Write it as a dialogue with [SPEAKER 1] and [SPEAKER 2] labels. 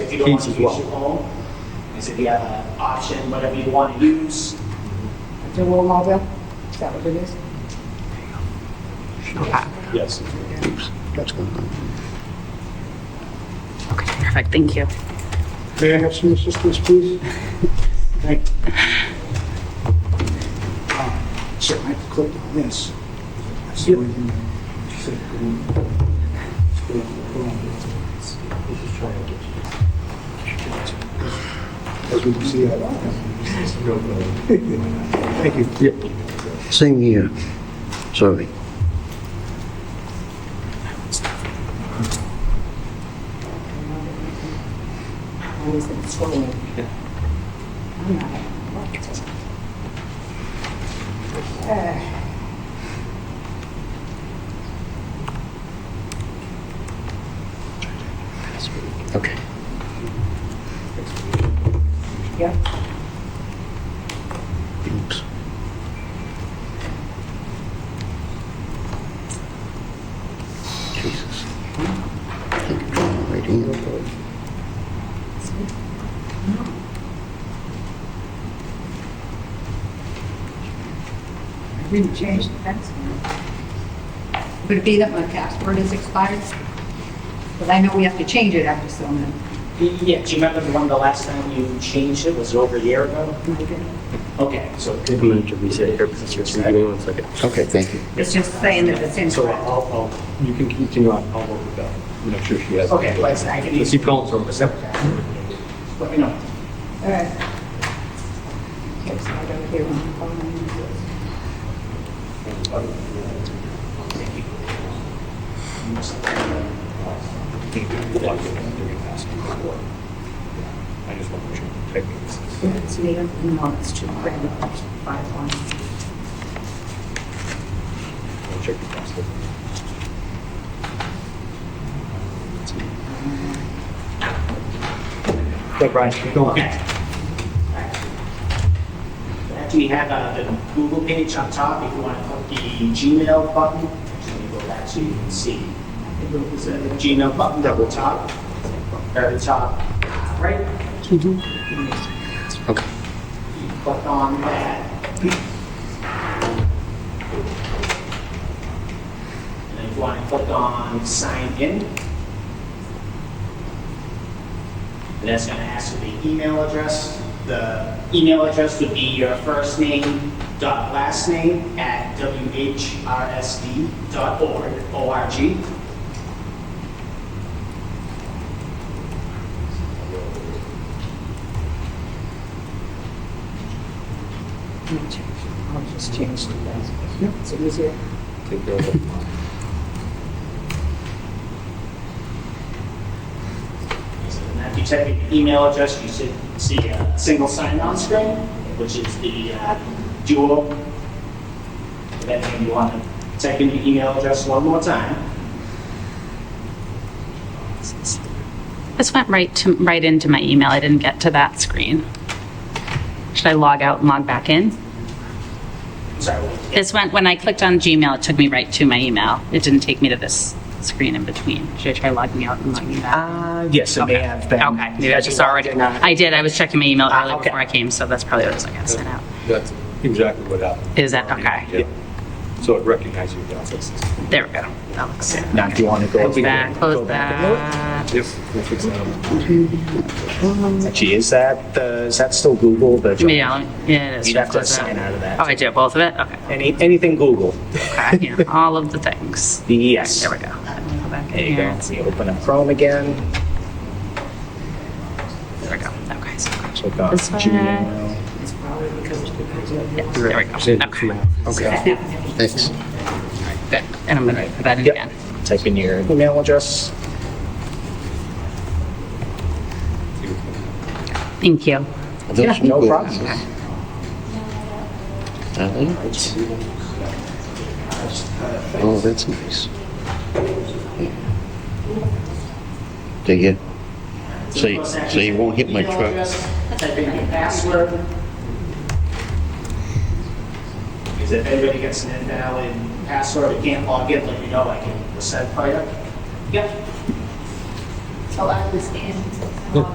[SPEAKER 1] if you don't want
[SPEAKER 2] Keys
[SPEAKER 1] to
[SPEAKER 2] as
[SPEAKER 1] use
[SPEAKER 2] well.
[SPEAKER 1] your home. I said, you have an uh, option, whatever you want to use.
[SPEAKER 3] The roll over, is that what it is?
[SPEAKER 2] Yes.
[SPEAKER 4] That's going on.
[SPEAKER 5] Perfect, thank you.
[SPEAKER 4] May I have some assistance, please? Thank you. Ah, So I have to click on this. That's the way you click on- click on. As we can see, I Thank you.
[SPEAKER 2] Yep.
[SPEAKER 4] Same here. Sorry.
[SPEAKER 3] Or is it scrolling? I'm not. Uh,
[SPEAKER 4] Okay.
[SPEAKER 3] Yep,
[SPEAKER 4] Oops. Jesus. Take it from the right hand.
[SPEAKER 6] I didn't change the password. Would it be that my password is expired? Because I know we have to change it after so many.
[SPEAKER 1] Yeah, do you remember the one the last time you changed it? Was it over a year ago? Okay, so it could
[SPEAKER 2] I'm going
[SPEAKER 1] be.
[SPEAKER 2] to reset here because it's just giving me one second.
[SPEAKER 4] Okay, thank you.
[SPEAKER 6] It's just saying that it's
[SPEAKER 2] So
[SPEAKER 6] incorrect.
[SPEAKER 2] I'll, I'll, you can continue on. I'll work with that. Make sure she has. it.
[SPEAKER 1] Okay, let's, I can
[SPEAKER 2] The
[SPEAKER 1] use,
[SPEAKER 2] seatbelt's on.
[SPEAKER 1] let me know.
[SPEAKER 3] all right. Okay, so I don't hear one calling.
[SPEAKER 2] I just want to check.
[SPEAKER 6] It's made up in months to grant five one.
[SPEAKER 2] I'll check the password. Okay, Brian, keep going.
[SPEAKER 1] Okay. After you have uh, the Google page on top, if you want to click the Gmail button, actually go back so you can see. There's a Gmail button double top, very top right.
[SPEAKER 4] Okay.
[SPEAKER 1] You Click on that. And then if you want to click on sign in, And that's going to ask for the email address. The email address would be your first name dot last name at whrsd dot org, O-R-G.
[SPEAKER 3] I'll just change the password. It's easier.
[SPEAKER 2] Take care of it.
[SPEAKER 1] And if you type in your email address, you should see a single sign-on screen, which is the uh, duo. Then if you want to type in your email address one more time.
[SPEAKER 5] This went right to, right into my email. I didn't get to that screen. Should I log out and log back in?
[SPEAKER 1] Sorry,
[SPEAKER 5] This went, when I clicked on Gmail, it took me right to my email. It didn't take me to this screen in between. Should I try logging out and logging back?
[SPEAKER 1] Uh, yes, it may have been.
[SPEAKER 5] Okay, maybe I just already,
[SPEAKER 1] Uh,
[SPEAKER 5] I did, I was checking my email
[SPEAKER 1] Ah,
[SPEAKER 5] earlier before I came, so that's probably what it was, I got sent out.
[SPEAKER 2] That's exactly what happened.
[SPEAKER 5] Is that, okay,
[SPEAKER 2] Yeah. So it recognizes you. yeah.
[SPEAKER 5] there we go. That looks,
[SPEAKER 1] Now, do you want to go?
[SPEAKER 5] close that, close that.
[SPEAKER 2] Yep. we'll fix that up.
[SPEAKER 1] Actually, is that, the- is that still Google? The
[SPEAKER 5] Maybe I'll, yeah, it is.
[SPEAKER 1] You'd have to
[SPEAKER 5] Close
[SPEAKER 1] sign out of that.
[SPEAKER 5] Oh, I do, both of it? Okay,
[SPEAKER 1] Any, anything Google?
[SPEAKER 5] okay, yeah, all of the things.
[SPEAKER 1] Yes.
[SPEAKER 5] There we go. Go back in
[SPEAKER 1] There you go.
[SPEAKER 5] here.
[SPEAKER 1] So you open up Chrome again.
[SPEAKER 5] There we go, okay, so,
[SPEAKER 1] Click on
[SPEAKER 5] This way.
[SPEAKER 1] Gmail.
[SPEAKER 5] yeah, there we go, okay.
[SPEAKER 4] Okay. Thanks.
[SPEAKER 5] Good. And I'm gonna put that in
[SPEAKER 1] Yep.
[SPEAKER 5] again.
[SPEAKER 1] Type in your email address.
[SPEAKER 5] Thank you.
[SPEAKER 4] Are
[SPEAKER 1] Yeah,
[SPEAKER 4] those
[SPEAKER 1] no
[SPEAKER 4] good?
[SPEAKER 1] problem.
[SPEAKER 4] Are they? Oh, that's nice. There you, so you, so you won't hit my
[SPEAKER 1] Email
[SPEAKER 4] truck.
[SPEAKER 1] address, Type in your password. Because if anybody gets an invalid password, they can't log in, let me know, I can reset it for you. Yep.
[SPEAKER 6] So I was in.